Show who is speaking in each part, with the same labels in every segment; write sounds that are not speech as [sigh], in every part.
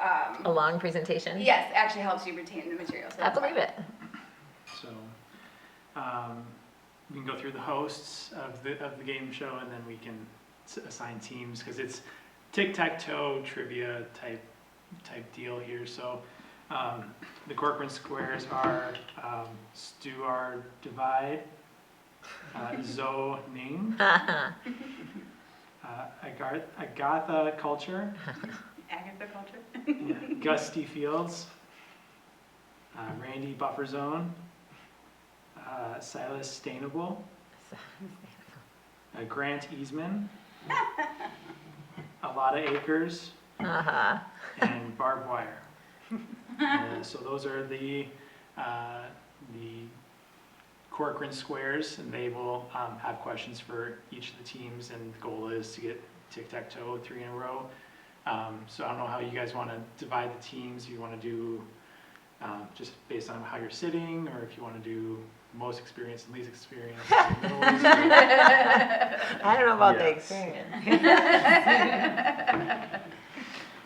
Speaker 1: um,
Speaker 2: A long presentation?
Speaker 1: yes, actually helps you retain the material. so
Speaker 2: I
Speaker 1: that's why.
Speaker 2: believe it.
Speaker 3: So, um, we can go through the hosts of the, of the game show and then we can s- assign teams because it's tic-tac-toe trivia type, type deal here. So, um, the Corcoran squares are, um, Stuart Divide, uh, Zo Ning,
Speaker 2: Uh-huh.
Speaker 3: uh, Agar- Agatha Culture,
Speaker 1: Agatha culture.
Speaker 3: yeah, [laughs] Gusty Fields, uh, Randy Bufferzone, uh, Silas Stainable, uh, Grant Easman, [laughs] Alada Acres,
Speaker 2: Uh-huh.
Speaker 3: and Barbed Wire. Uh, so those are the uh, the Corcoran squares, and they will um, have questions for each of the teams. And the goal is to get tic tac toe three in a row. Um, so I don't know how you guys want to divide the teams. You want to do um, just based on how you're sitting, or if you want to do most experience and least experience. middle experience.
Speaker 2: I don't know about the
Speaker 3: Yes.
Speaker 2: experience.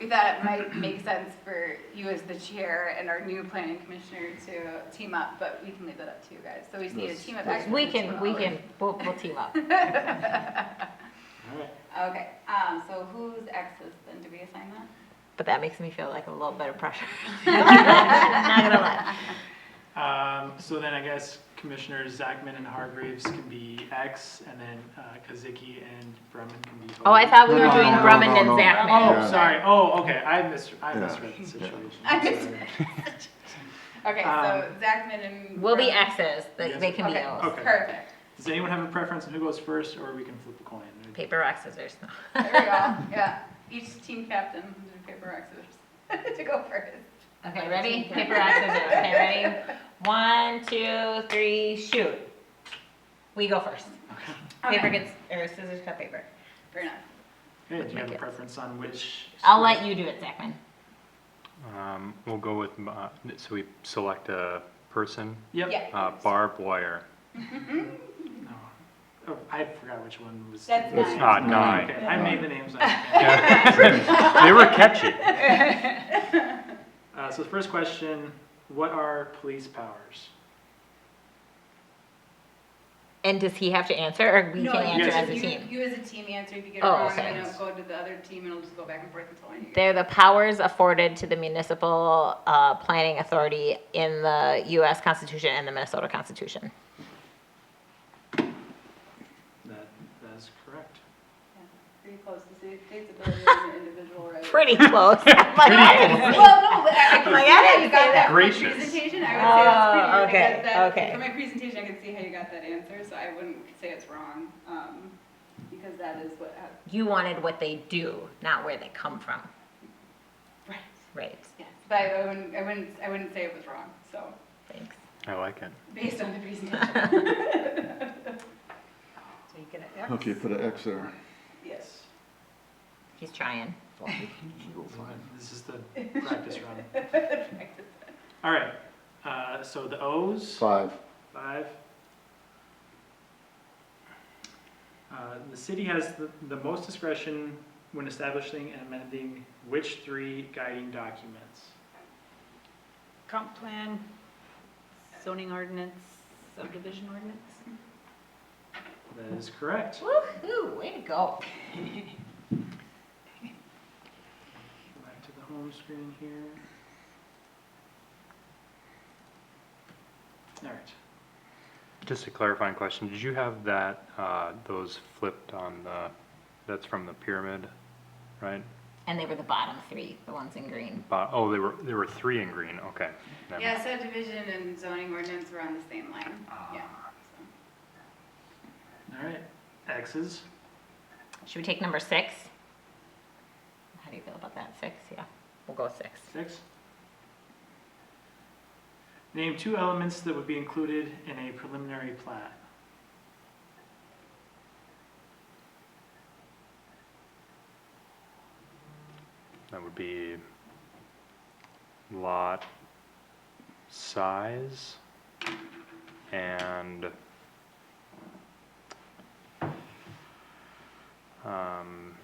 Speaker 1: We thought it might make sense for you as the chair and our new planning commissioner to team up, but we can leave that up to you guys. So we just need a
Speaker 4: Yes,
Speaker 1: team of
Speaker 4: yes.
Speaker 1: experts.
Speaker 2: We
Speaker 1: and
Speaker 2: can,
Speaker 1: team
Speaker 2: we
Speaker 1: of
Speaker 2: can, we'll, we'll team up.
Speaker 3: All right.
Speaker 1: hours. Okay, um, so who's X's then? Do we assign that?
Speaker 2: But that makes me feel like a little bit of [laughs] pressure. Not gonna lie.
Speaker 3: Um, so then I guess Commissioners Zachman and Hargreaves can be X, and then uh, Kazicki and Bremen can be.
Speaker 2: Oh, I thought we
Speaker 4: No,
Speaker 2: were
Speaker 4: no,
Speaker 2: doing
Speaker 4: no, no,
Speaker 2: Brumman
Speaker 4: no,
Speaker 2: and
Speaker 4: no.
Speaker 2: Zachman.
Speaker 3: Oh,
Speaker 4: Yeah.
Speaker 3: sorry. Oh, okay. I mis- I
Speaker 4: Yeah.
Speaker 3: misread the
Speaker 4: Yeah.
Speaker 3: situation.
Speaker 1: I
Speaker 3: Sorry.
Speaker 1: misread. Okay, so
Speaker 3: Um,
Speaker 1: Zachman and.
Speaker 2: We'll be
Speaker 1: Brumman.
Speaker 2: X's, they, they can be
Speaker 1: Okay,
Speaker 2: O's.
Speaker 3: Okay.
Speaker 1: Perfect.
Speaker 3: Does anyone have a preference on who goes first, or we can flip a coin?
Speaker 2: Paper, rock, scissors.
Speaker 1: There we go, yeah. Each team captain, do paper, rock, scissors, [laughs] to go first.
Speaker 2: Okay, ready? Paper, rock, scissors. Okay, ready? One, two, three, shoot. We go first. Paper
Speaker 1: Okay,
Speaker 2: gets, or scissors cut paper.
Speaker 1: Fair enough.
Speaker 3: Okay, do you
Speaker 2: my
Speaker 3: have a
Speaker 2: kids.
Speaker 3: preference on which?
Speaker 2: I'll let you do it, Zachman.
Speaker 5: Um, we'll go with, uh, so we select a person,
Speaker 3: Yep.
Speaker 1: Yeah. Mm-hmm.
Speaker 5: uh, barbed wire.
Speaker 3: No. Mm. Oh, I forgot which one was.
Speaker 1: That's
Speaker 4: That's
Speaker 1: nine.
Speaker 5: Ah,
Speaker 3: Okay,
Speaker 5: nine.
Speaker 3: I made the names.
Speaker 1: [laughs]
Speaker 3: up.
Speaker 5: Yeah. They were catchy.
Speaker 3: Uh, so the first question, what are police powers?
Speaker 2: And does he have to answer, or we
Speaker 1: No,
Speaker 2: can
Speaker 1: you-
Speaker 2: answer
Speaker 3: Yes.
Speaker 2: as a
Speaker 1: you-
Speaker 2: team?
Speaker 1: You as a team answer, if you get it
Speaker 2: Oh,
Speaker 1: wrong,
Speaker 2: okay.
Speaker 1: then it'll go to the other team and it'll just go back and forth until I get it.
Speaker 2: They're the powers afforded to the municipal uh, planning authority in the U.S. Constitution and the Minnesota Constitution.
Speaker 3: That, that is correct.
Speaker 1: Pretty close to state, state's ability as an individual right.
Speaker 2: [laughs] Pretty close. I'm [laughs] like, I didn't say-
Speaker 1: Well, no, but I I can
Speaker 2: Like,
Speaker 1: see
Speaker 2: I
Speaker 1: how
Speaker 2: didn't
Speaker 1: you got
Speaker 2: say
Speaker 1: that
Speaker 2: that.
Speaker 1: from my
Speaker 5: Gracious.
Speaker 1: presentation, I would say that's pretty.
Speaker 2: Oh,
Speaker 1: hard to get
Speaker 2: okay,
Speaker 1: that-
Speaker 2: okay.
Speaker 1: From my presentation, I could see how you got that answer, so I wouldn't say it's wrong, um, because that is what, hap- [laughs]
Speaker 2: You wanted what they do, not where they come from,
Speaker 1: right,
Speaker 2: right?
Speaker 1: yes. But I wouldn't, I wouldn't, I wouldn't say it was wrong, so,
Speaker 2: Thanks.
Speaker 5: I like it.
Speaker 1: based on the presentation,
Speaker 2: [laughs]
Speaker 1: [laughs]
Speaker 4: Okay, put an X there.
Speaker 1: yes.
Speaker 2: He's trying.
Speaker 3: Mm,
Speaker 1: [laughs]
Speaker 3: This is the practice run. All right, uh, so the O's,
Speaker 4: Five.
Speaker 3: five. Uh, the city has the, the most discretion when establishing and amending which three guiding documents?
Speaker 6: Comp plan, zoning ordinance, subdivision ordinance?
Speaker 3: That is correct.
Speaker 2: Woo-hoo, way to go.
Speaker 3: Go Back to the home screen here. All right,
Speaker 5: Just a clarifying question, did you have that, uh, those flipped on the, that's from the pyramid, right?
Speaker 2: And they were the bottom three, the ones in green.
Speaker 5: Bo- oh, they were, there were three in green, okay. Never mind.
Speaker 1: Yeah, subdivision and zoning ordinance were on the same line, yeah. so.
Speaker 3: all right, X's.
Speaker 2: Should we take number six? How do you feel about that? Six, yeah. We'll go with six.
Speaker 3: Six. Name two elements that would be included in a preliminary plat.
Speaker 5: That would be lot size and um,